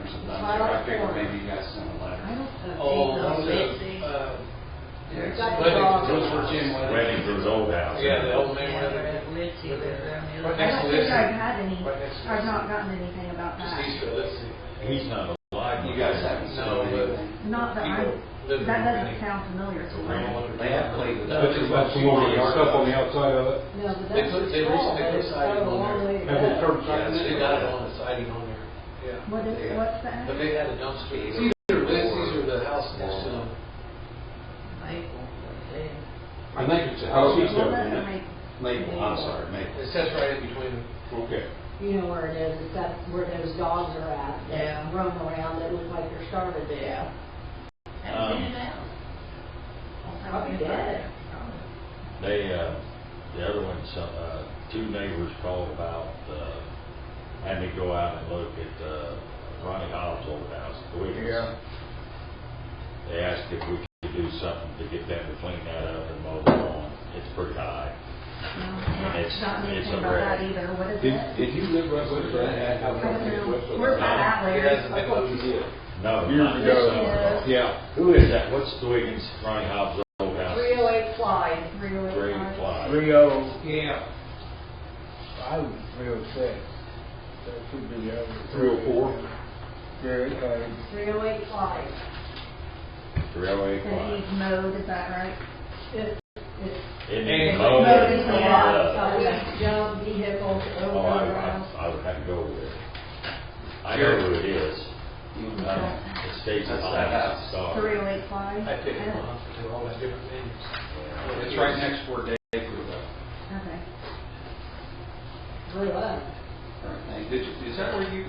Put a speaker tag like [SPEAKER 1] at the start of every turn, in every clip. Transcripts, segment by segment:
[SPEAKER 1] I figured maybe you guys sent a letter.
[SPEAKER 2] Oh,
[SPEAKER 3] no,
[SPEAKER 2] the, uh,
[SPEAKER 3] We've got the
[SPEAKER 2] wedding,
[SPEAKER 3] dog.
[SPEAKER 2] those were Jim Wedding.
[SPEAKER 4] Weddington's old house.
[SPEAKER 2] Yeah, the old man
[SPEAKER 3] Yeah,
[SPEAKER 2] wedding,
[SPEAKER 3] Litzy lives there. and the
[SPEAKER 2] Right
[SPEAKER 3] other-
[SPEAKER 5] I
[SPEAKER 2] next to
[SPEAKER 5] don't
[SPEAKER 2] this.
[SPEAKER 5] think I've had any,
[SPEAKER 2] Right next to
[SPEAKER 5] I've
[SPEAKER 2] this.
[SPEAKER 5] not gotten anything about
[SPEAKER 2] just
[SPEAKER 5] that.
[SPEAKER 2] east of, let's see.
[SPEAKER 4] He's not alive.
[SPEAKER 1] You guys haven't
[SPEAKER 2] No,
[SPEAKER 1] sent
[SPEAKER 2] but-
[SPEAKER 1] anything.
[SPEAKER 5] Not that
[SPEAKER 2] People
[SPEAKER 5] I'm,
[SPEAKER 2] live
[SPEAKER 5] that
[SPEAKER 2] in
[SPEAKER 5] doesn't
[SPEAKER 2] Greenwich.
[SPEAKER 5] sound familiar to me.
[SPEAKER 1] They have played with us.
[SPEAKER 6] That's about some more stuff on the outside of it.
[SPEAKER 5] No, but
[SPEAKER 2] They
[SPEAKER 5] that's
[SPEAKER 2] put-
[SPEAKER 5] a
[SPEAKER 2] they
[SPEAKER 5] troll,
[SPEAKER 2] recently
[SPEAKER 5] but it's
[SPEAKER 2] decided
[SPEAKER 5] so
[SPEAKER 2] on
[SPEAKER 5] long
[SPEAKER 2] there.
[SPEAKER 5] way
[SPEAKER 6] Have they
[SPEAKER 5] back.
[SPEAKER 6] curbed
[SPEAKER 2] Yeah,
[SPEAKER 6] something?
[SPEAKER 2] they got it on the siding on there, yeah.
[SPEAKER 5] What is, what's that?
[SPEAKER 2] But they had a dumpster. It's either this, these are the house next to them.
[SPEAKER 3] Maple, they-
[SPEAKER 6] I think it's a house east
[SPEAKER 5] Well,
[SPEAKER 6] of
[SPEAKER 5] that
[SPEAKER 6] it.
[SPEAKER 5] might-
[SPEAKER 1] Maple, I'm sorry, Maple.
[SPEAKER 2] It sits right in between.
[SPEAKER 6] Okay.
[SPEAKER 7] You know where it is, it's that, where those dogs are at,
[SPEAKER 3] Yeah.
[SPEAKER 7] that roam around, that look like they're starving to death.
[SPEAKER 3] Have you
[SPEAKER 4] Um,
[SPEAKER 3] been out?
[SPEAKER 7] Probably dead.
[SPEAKER 4] They, uh, the other one, some, uh, two neighbors called about, uh, having to go out and look at, uh, Ronnie Hobbs' old house, the Wiggins. They asked if we could do something to get them to clean that up and mow the lawn. It's pretty high.
[SPEAKER 5] No,
[SPEAKER 4] It's-
[SPEAKER 5] Not
[SPEAKER 4] it's
[SPEAKER 5] anything
[SPEAKER 4] a
[SPEAKER 5] about
[SPEAKER 4] red.
[SPEAKER 5] that either, what is
[SPEAKER 6] Did,
[SPEAKER 5] it?
[SPEAKER 6] did you live right with that house?
[SPEAKER 5] I don't know. Where's
[SPEAKER 4] No.
[SPEAKER 5] that at, Larry?
[SPEAKER 2] Yes.
[SPEAKER 6] I thought you did.
[SPEAKER 4] No.
[SPEAKER 6] Years
[SPEAKER 4] not
[SPEAKER 6] ago.
[SPEAKER 4] summer.
[SPEAKER 6] Yeah.
[SPEAKER 4] Who is that? What's the Wiggins, Ronnie Hobbs' old house?
[SPEAKER 7] Three oh eight Clyde.
[SPEAKER 5] Three oh eight
[SPEAKER 4] Three
[SPEAKER 5] five.
[SPEAKER 4] o'clock.
[SPEAKER 8] Rio,
[SPEAKER 2] Yeah.
[SPEAKER 8] I was three oh six. That should be the other.
[SPEAKER 6] Three oh four?
[SPEAKER 8] Three, uh,
[SPEAKER 7] Three oh eight Clyde.
[SPEAKER 4] Three oh eight
[SPEAKER 5] That
[SPEAKER 4] o'clock.
[SPEAKER 5] he's mowed, is that right?
[SPEAKER 7] It's, it's
[SPEAKER 2] And-
[SPEAKER 4] It needs
[SPEAKER 2] Oh,
[SPEAKER 7] mowed in
[SPEAKER 4] mowing.
[SPEAKER 7] the
[SPEAKER 5] yeah.
[SPEAKER 7] lot,
[SPEAKER 4] Uh,
[SPEAKER 7] so we jump vehicles
[SPEAKER 4] Oh, I,
[SPEAKER 7] over, around.
[SPEAKER 4] I, I would have to go with it. I know who it is. Um, It states it's
[SPEAKER 1] That's
[SPEAKER 4] on
[SPEAKER 1] that
[SPEAKER 4] the
[SPEAKER 1] house.
[SPEAKER 5] Three
[SPEAKER 4] star.
[SPEAKER 5] oh eight five?
[SPEAKER 2] I picked them up to do all those different things.
[SPEAKER 1] It's right next to where Dave grew up.
[SPEAKER 5] Okay.
[SPEAKER 7] grew up.
[SPEAKER 1] Right, thank- Did you, is that where you?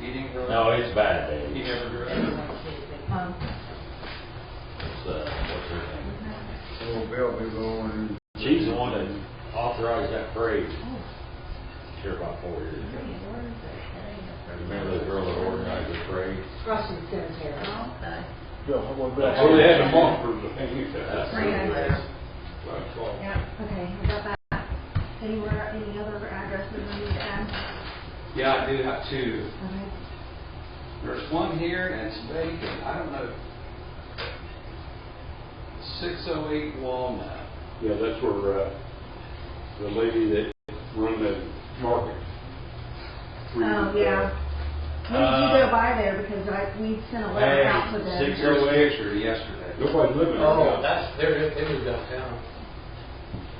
[SPEAKER 1] He didn't grow up?
[SPEAKER 4] No, it's bad, Dave.
[SPEAKER 1] He never grew
[SPEAKER 7] They
[SPEAKER 1] up.
[SPEAKER 7] weren't kids, they-
[SPEAKER 5] Um,
[SPEAKER 4] It's, uh, what's her name?
[SPEAKER 8] old Bill be going.
[SPEAKER 4] She's the one that authorized that parade here about four years
[SPEAKER 3] Hey,
[SPEAKER 4] ago.
[SPEAKER 3] where is it? There you go.
[SPEAKER 4] Remember the girl that organized the parade?
[SPEAKER 7] Russian cemetery.
[SPEAKER 3] Okay.
[SPEAKER 8] Bill, how about Bill?
[SPEAKER 4] Oh,
[SPEAKER 6] So they had a month for the thing you
[SPEAKER 4] That's
[SPEAKER 6] said.
[SPEAKER 2] oh
[SPEAKER 5] Three
[SPEAKER 4] who
[SPEAKER 6] That's all.
[SPEAKER 5] yeah, okay, we got that. Anywhere, any other addresses we need to add?
[SPEAKER 1] Yeah, I do have two.
[SPEAKER 5] Okay.
[SPEAKER 1] There's one here and it's vacant, I don't know. Six oh eight Walnut.
[SPEAKER 6] Yeah, that's where, uh, the lady that run the market.
[SPEAKER 5] Oh, yeah. We need
[SPEAKER 2] Uh,
[SPEAKER 5] to go by there because I, we sent a
[SPEAKER 4] Hey,
[SPEAKER 5] letter out to them.
[SPEAKER 4] six- oh
[SPEAKER 1] Here's a picture yesterday.
[SPEAKER 6] Nobody living there
[SPEAKER 2] Oh,
[SPEAKER 6] now.
[SPEAKER 2] that's, they're, they moved downtown.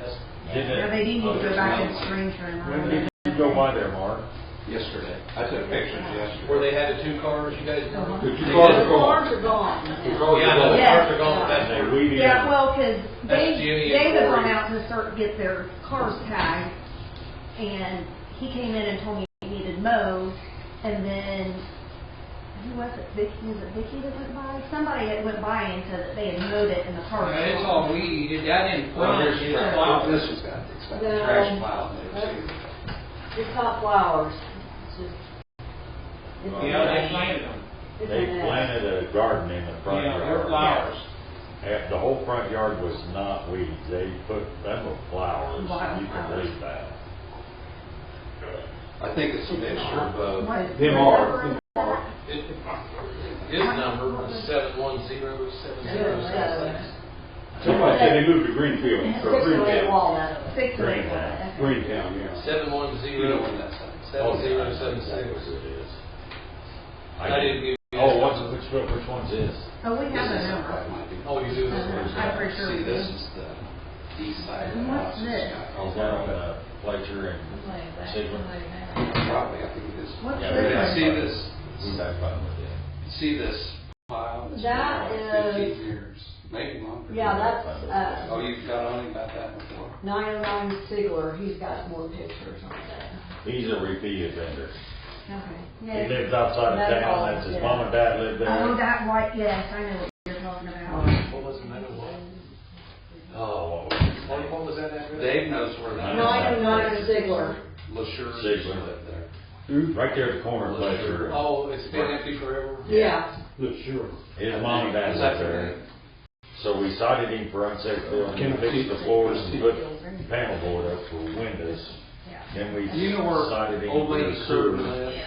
[SPEAKER 2] That's,
[SPEAKER 4] did it.
[SPEAKER 5] Yeah, they do need to go back and screen
[SPEAKER 4] When
[SPEAKER 5] room.
[SPEAKER 4] did you go by there, Mark?
[SPEAKER 1] Yesterday. I took pictures yesterday.
[SPEAKER 2] where they had the two cars, you guys remember?
[SPEAKER 6] The two
[SPEAKER 2] They
[SPEAKER 6] cars
[SPEAKER 2] did-
[SPEAKER 6] are gone.
[SPEAKER 7] Farms are gone.
[SPEAKER 6] The
[SPEAKER 2] Oh, Yeah,
[SPEAKER 6] cars are gone.
[SPEAKER 2] I know, the
[SPEAKER 5] Yeah.
[SPEAKER 2] cars are gone, that's
[SPEAKER 4] And
[SPEAKER 2] where,
[SPEAKER 4] we didn't-
[SPEAKER 5] Yeah, well, because they,
[SPEAKER 2] That's Jimmy and
[SPEAKER 5] they had gone
[SPEAKER 2] Corey.
[SPEAKER 5] out to start, get their cars tagged, and he came in and told me he needed mowed, and then, who was it, Vicky, was it Vicky that went by? Somebody had went by and said that they had mowed it in the car.
[SPEAKER 2] But it's all weed, that didn't.
[SPEAKER 1] Well, here's the
[SPEAKER 2] Yeah.
[SPEAKER 1] trash. This has got, it's got the
[SPEAKER 7] No.
[SPEAKER 1] trash pile in there too.
[SPEAKER 7] It's not flowers, it's just. it's a
[SPEAKER 2] Yeah, they
[SPEAKER 7] mess.
[SPEAKER 2] planted them.
[SPEAKER 7] It's a
[SPEAKER 4] They
[SPEAKER 7] mess.
[SPEAKER 4] planted a garden in the front
[SPEAKER 2] Yeah,
[SPEAKER 4] yard.
[SPEAKER 2] they're flowers.
[SPEAKER 4] And The whole front yard was not weeds, they put, them were flowers,
[SPEAKER 5] Wild
[SPEAKER 4] you can
[SPEAKER 5] flowers.
[SPEAKER 4] believe that.
[SPEAKER 1] I think it's a mixture of both.
[SPEAKER 5] What-
[SPEAKER 6] Them are.
[SPEAKER 5] whatever.
[SPEAKER 2] It- His number was seven one zero seven zero seven six.
[SPEAKER 6] Somebody said they moved to Greenfield,
[SPEAKER 7] Six
[SPEAKER 6] or
[SPEAKER 7] or eight
[SPEAKER 6] Greentown.
[SPEAKER 7] walnut.
[SPEAKER 5] Six
[SPEAKER 4] Green
[SPEAKER 5] lanes.
[SPEAKER 4] light.
[SPEAKER 5] Okay.
[SPEAKER 6] Greentown, yeah.
[SPEAKER 2] Seven one
[SPEAKER 1] You
[SPEAKER 2] zero
[SPEAKER 1] know when that's at.
[SPEAKER 2] seven zero seven
[SPEAKER 4] That's what
[SPEAKER 2] six.
[SPEAKER 4] it is.
[SPEAKER 2] I didn't give you.
[SPEAKER 4] Oh, what's, which, one- which one's this?
[SPEAKER 5] Oh, we have a
[SPEAKER 1] This is-
[SPEAKER 5] number.
[SPEAKER 1] that might be-
[SPEAKER 2] Oh, you do this
[SPEAKER 5] Uh-huh.
[SPEAKER 2] first.
[SPEAKER 5] I'm pretty sure we
[SPEAKER 1] See, this
[SPEAKER 5] do.
[SPEAKER 1] is the east side of the house. It's
[SPEAKER 5] What's this?
[SPEAKER 1] got all
[SPEAKER 4] Is that on
[SPEAKER 1] the-
[SPEAKER 4] uh, Fletcher and,
[SPEAKER 3] Somebody back,
[SPEAKER 4] Sigma.
[SPEAKER 3] somebody back.
[SPEAKER 1] Probably, I think it is.
[SPEAKER 5] What's
[SPEAKER 4] Yeah,
[SPEAKER 5] this?
[SPEAKER 1] Yeah,
[SPEAKER 5] one?
[SPEAKER 1] See this,
[SPEAKER 4] who's that fun with it?
[SPEAKER 1] see this pile? It's been
[SPEAKER 7] That
[SPEAKER 1] like
[SPEAKER 7] is-
[SPEAKER 1] Fifteen years, maybe longer.
[SPEAKER 7] Yeah, that's,
[SPEAKER 1] Oh,
[SPEAKER 7] uh,
[SPEAKER 1] you've got on about that before?
[SPEAKER 7] nine oh nine Sigler, he's got more pictures on that.
[SPEAKER 4] He's a repeat offender.
[SPEAKER 5] Okay.
[SPEAKER 4] He
[SPEAKER 5] Yeah.
[SPEAKER 4] lives outside of
[SPEAKER 7] That's all,
[SPEAKER 4] town, that's his
[SPEAKER 7] yeah.
[SPEAKER 4] mom and dad live
[SPEAKER 5] Oh,
[SPEAKER 4] there.
[SPEAKER 5] that white, yes, I know what you're talking about.
[SPEAKER 2] What was the matter with?
[SPEAKER 4] Oh.
[SPEAKER 2] What what was that address?
[SPEAKER 1] Dave knows where that is.
[SPEAKER 7] Nine oh nine Sigler.
[SPEAKER 1] LaSure used to
[SPEAKER 4] Sigler.
[SPEAKER 1] live there.
[SPEAKER 4] Right there at the corner of Fletcher.
[SPEAKER 2] Oh, it's been empty forever.
[SPEAKER 7] Yeah,
[SPEAKER 6] Look, sure.
[SPEAKER 4] His mom and dad
[SPEAKER 1] Oh, Is that
[SPEAKER 4] live there. So we cited him for unsafe building, We fixed the floors and put panel board up for windows. Then we
[SPEAKER 1] You know where
[SPEAKER 4] cited him
[SPEAKER 1] old
[SPEAKER 4] for
[SPEAKER 1] lady
[SPEAKER 4] sewer.
[SPEAKER 1] Curtin lives?
[SPEAKER 3] Yeah.